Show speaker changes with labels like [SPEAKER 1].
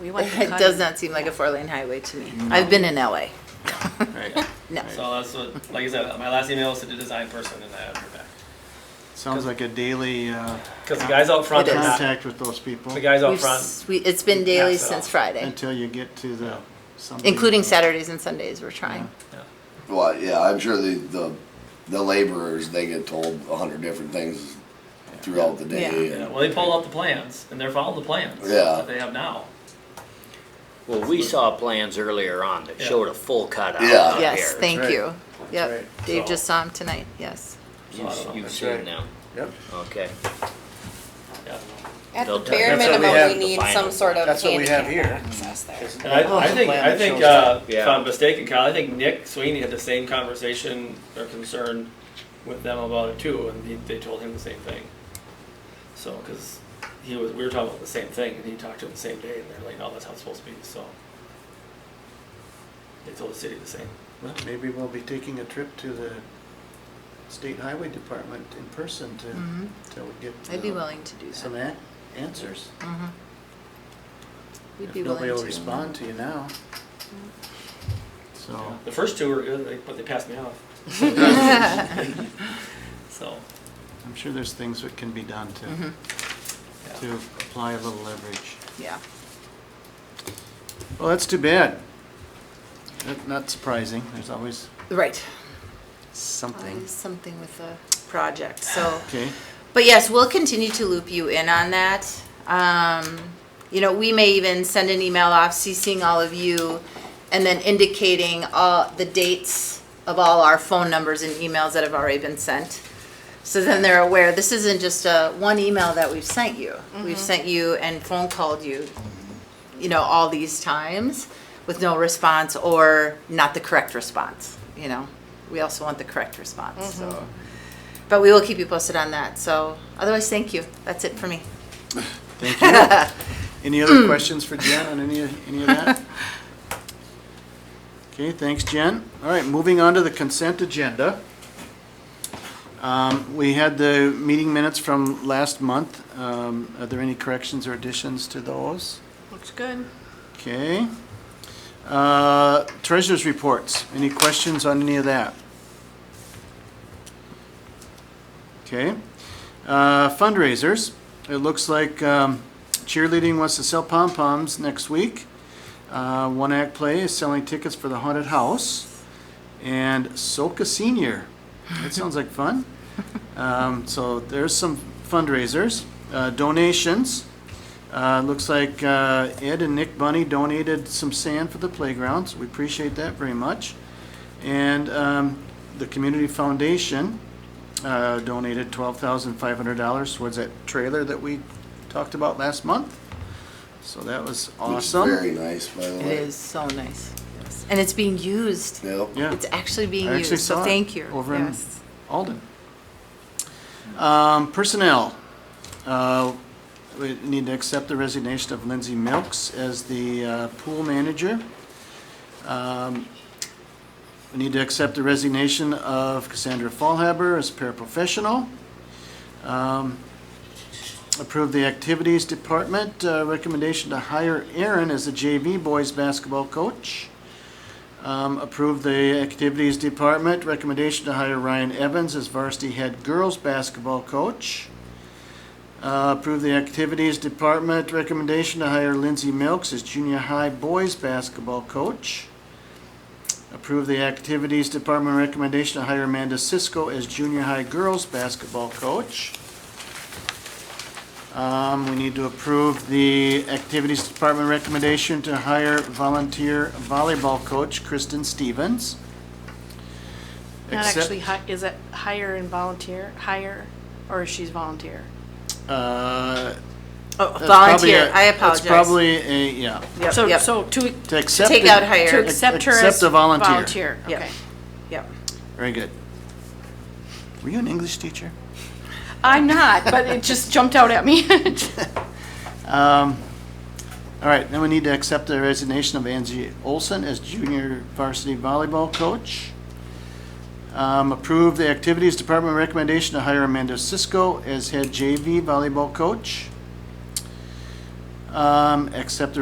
[SPEAKER 1] We want to
[SPEAKER 2] It
[SPEAKER 1] cut
[SPEAKER 2] does
[SPEAKER 1] it.
[SPEAKER 2] not seem like a four-lane highway to me. I've been in LA.
[SPEAKER 3] Right.
[SPEAKER 2] No.
[SPEAKER 3] So that's what, like I said, my last email was to the design person and I have her back.
[SPEAKER 4] Sounds like a daily uh,
[SPEAKER 3] Because the guys out front
[SPEAKER 2] It
[SPEAKER 3] are
[SPEAKER 2] is.
[SPEAKER 3] not,
[SPEAKER 4] contact with those people
[SPEAKER 3] the guys out
[SPEAKER 2] We've
[SPEAKER 3] front,
[SPEAKER 2] s- we- It's been daily
[SPEAKER 3] Pass it
[SPEAKER 2] since
[SPEAKER 3] off.
[SPEAKER 2] Friday,
[SPEAKER 4] until you get to the, somebody-
[SPEAKER 2] including Saturdays and Sundays, we're trying.
[SPEAKER 5] Well, yeah, I'm sure the, the, the laborers, they get told a hundred different things throughout the day.
[SPEAKER 3] you know,
[SPEAKER 5] and-
[SPEAKER 3] well, they pull out the plans and they're following the plans
[SPEAKER 5] Yeah.
[SPEAKER 3] that they have now.
[SPEAKER 6] Well, we saw plans earlier on that
[SPEAKER 3] Yeah.
[SPEAKER 6] showed a full cutout
[SPEAKER 5] Yeah.
[SPEAKER 6] out there.
[SPEAKER 2] Yes, thank
[SPEAKER 7] right.
[SPEAKER 2] you. Yep,
[SPEAKER 7] right.
[SPEAKER 2] Dave
[SPEAKER 3] So-
[SPEAKER 2] just saw him tonight, yes.
[SPEAKER 6] You-
[SPEAKER 3] So I don't know.
[SPEAKER 6] You've
[SPEAKER 7] That's
[SPEAKER 6] seen
[SPEAKER 7] right.
[SPEAKER 6] them,
[SPEAKER 7] Yep.
[SPEAKER 6] okay.
[SPEAKER 3] Yeah.
[SPEAKER 8] At the
[SPEAKER 6] They'll-
[SPEAKER 8] bare
[SPEAKER 6] that's what we
[SPEAKER 8] minimum,
[SPEAKER 7] have
[SPEAKER 8] we
[SPEAKER 6] to
[SPEAKER 8] need
[SPEAKER 6] find
[SPEAKER 8] some
[SPEAKER 6] them.
[SPEAKER 8] sort of
[SPEAKER 7] That's what we have
[SPEAKER 8] handicap
[SPEAKER 7] here.
[SPEAKER 8] access there.
[SPEAKER 3] And
[SPEAKER 2] Oh,
[SPEAKER 3] I, I think, I think, uh, if
[SPEAKER 6] Yeah.
[SPEAKER 3] I'm mistaken, Kyle, I think Nick Sweeney had the same conversation or concern with them about it too, and he, they told him the same thing. So, because he was, we were talking about the same thing, and he talked to him the same day, and they're like, "No, that's how it's supposed to be." So they told the city the same.
[SPEAKER 4] Maybe we'll be taking a trip to the state highway department in person
[SPEAKER 2] Mhm.
[SPEAKER 4] to, to get.
[SPEAKER 2] I'd be
[SPEAKER 4] uh,
[SPEAKER 2] willing to do
[SPEAKER 4] Some
[SPEAKER 2] that.
[SPEAKER 4] an- answers.
[SPEAKER 2] Mhm. We'd
[SPEAKER 4] If
[SPEAKER 2] be
[SPEAKER 4] nobody
[SPEAKER 2] willing
[SPEAKER 4] will
[SPEAKER 2] to.
[SPEAKER 4] respond to you now. So,
[SPEAKER 3] The first two were good, like, but they passed me off. So
[SPEAKER 4] I'm sure there's things that can be done
[SPEAKER 2] Mhm.
[SPEAKER 4] to,
[SPEAKER 3] Yeah.
[SPEAKER 2] Mm-hmm.
[SPEAKER 4] to apply a little leverage.
[SPEAKER 2] Yeah.
[SPEAKER 4] Well, that's too bad. That- Not surprising, there's always
[SPEAKER 2] Right.
[SPEAKER 4] something.
[SPEAKER 2] Always Something with the project, so.
[SPEAKER 4] Okay,
[SPEAKER 2] But yes, we'll continue to loop you in on that. Um, you know, we may even send an email off CCing all of you and then indicating all the dates of all our phone numbers and emails that have already been sent. So then they're aware, this isn't just a one email that we've sent you. We've sent you and phone called you, you know, all these times with no response or not the correct response, you know. We also want the correct response, so. But we will keep you posted on that. So otherwise, thank you. That's it for me.
[SPEAKER 4] thank you. Any other questions for Jen on any, of- any of that? Okay, thanks, Jen. All right, moving on to the consent agenda. Um, We had the meeting minutes from last month. Um, Are there any corrections or additions to those?
[SPEAKER 1] Looks good.
[SPEAKER 4] Okay. Uh, Treasurers' reports, any questions on any of that? Okay. Uh, Fundraisers, it looks like um, cheerleading wants to sell pom-poms next week. Uh, One Act Play is selling tickets for the haunted house. And Soka Senior, that sounds like fun. Um, So there's some fundraisers. Uh, Donations, uh, looks like uh, Ed and Nick Bunny donated some sand for the playgrounds. We appreciate that very much. And um, the Community Foundation uh, donated $12,500 towards that trailer that we talked about last month. So that was
[SPEAKER 5] Looks
[SPEAKER 4] awesome.
[SPEAKER 5] Very nice, by the
[SPEAKER 2] It
[SPEAKER 5] way.
[SPEAKER 2] is so nice. And it's being used.
[SPEAKER 5] Yep.
[SPEAKER 4] Yeah.
[SPEAKER 2] It's actually being
[SPEAKER 4] I actually
[SPEAKER 2] used. So
[SPEAKER 4] saw it
[SPEAKER 2] thank you.
[SPEAKER 4] over in-
[SPEAKER 2] yes.
[SPEAKER 4] Alden. Um, Personnel, uh, we need to accept the resignation of Lindsay Milks as the uh, pool manager. Um, We need to accept the resignation of Cassandra Fallhaber as paraprofessional. Um, Approve the Activities Department, uh, recommendation to hire Aaron as the JV boys basketball coach. Um, approve the Activities Department recommendation to hire Ryan Evans as varsity head girls basketball coach. Uh, approve the Activities Department recommendation to hire Lindsay Milks as junior high boys basketball coach. Approve the Activities Department recommendation to hire Amanda Cisco as junior high girls basketball coach. Um, we need to approve the Activities Department recommendation to hire volunteer volleyball coach Kristen Stevens.
[SPEAKER 1] Not
[SPEAKER 4] Accept-
[SPEAKER 1] actually, hi- is it hire and volunteer, hire, or she's volunteer?
[SPEAKER 4] Uh,
[SPEAKER 2] Oh,
[SPEAKER 4] that's probably
[SPEAKER 2] volunteer.
[SPEAKER 4] a-
[SPEAKER 2] I apologize.
[SPEAKER 4] That's probably a, yeah.
[SPEAKER 2] Yep,
[SPEAKER 1] So,
[SPEAKER 2] yep.
[SPEAKER 1] so to, e-,
[SPEAKER 4] To accept.
[SPEAKER 2] Take
[SPEAKER 4] the-
[SPEAKER 2] out
[SPEAKER 1] to
[SPEAKER 2] hire.
[SPEAKER 4] Ac-
[SPEAKER 1] accept her as
[SPEAKER 4] accept a volunteer.
[SPEAKER 1] volunteer,
[SPEAKER 2] Yep.
[SPEAKER 1] okay.
[SPEAKER 2] Yep.
[SPEAKER 4] Very good. Were you an English teacher?
[SPEAKER 1] I'm not, but it just jumped out at me.
[SPEAKER 4] Um, all right, then we need to accept the resignation of Angie Olson as junior varsity volleyball coach. Um, approve the Activities Department recommendation to hire Amanda Cisco as head JV volleyball coach. Um, accept the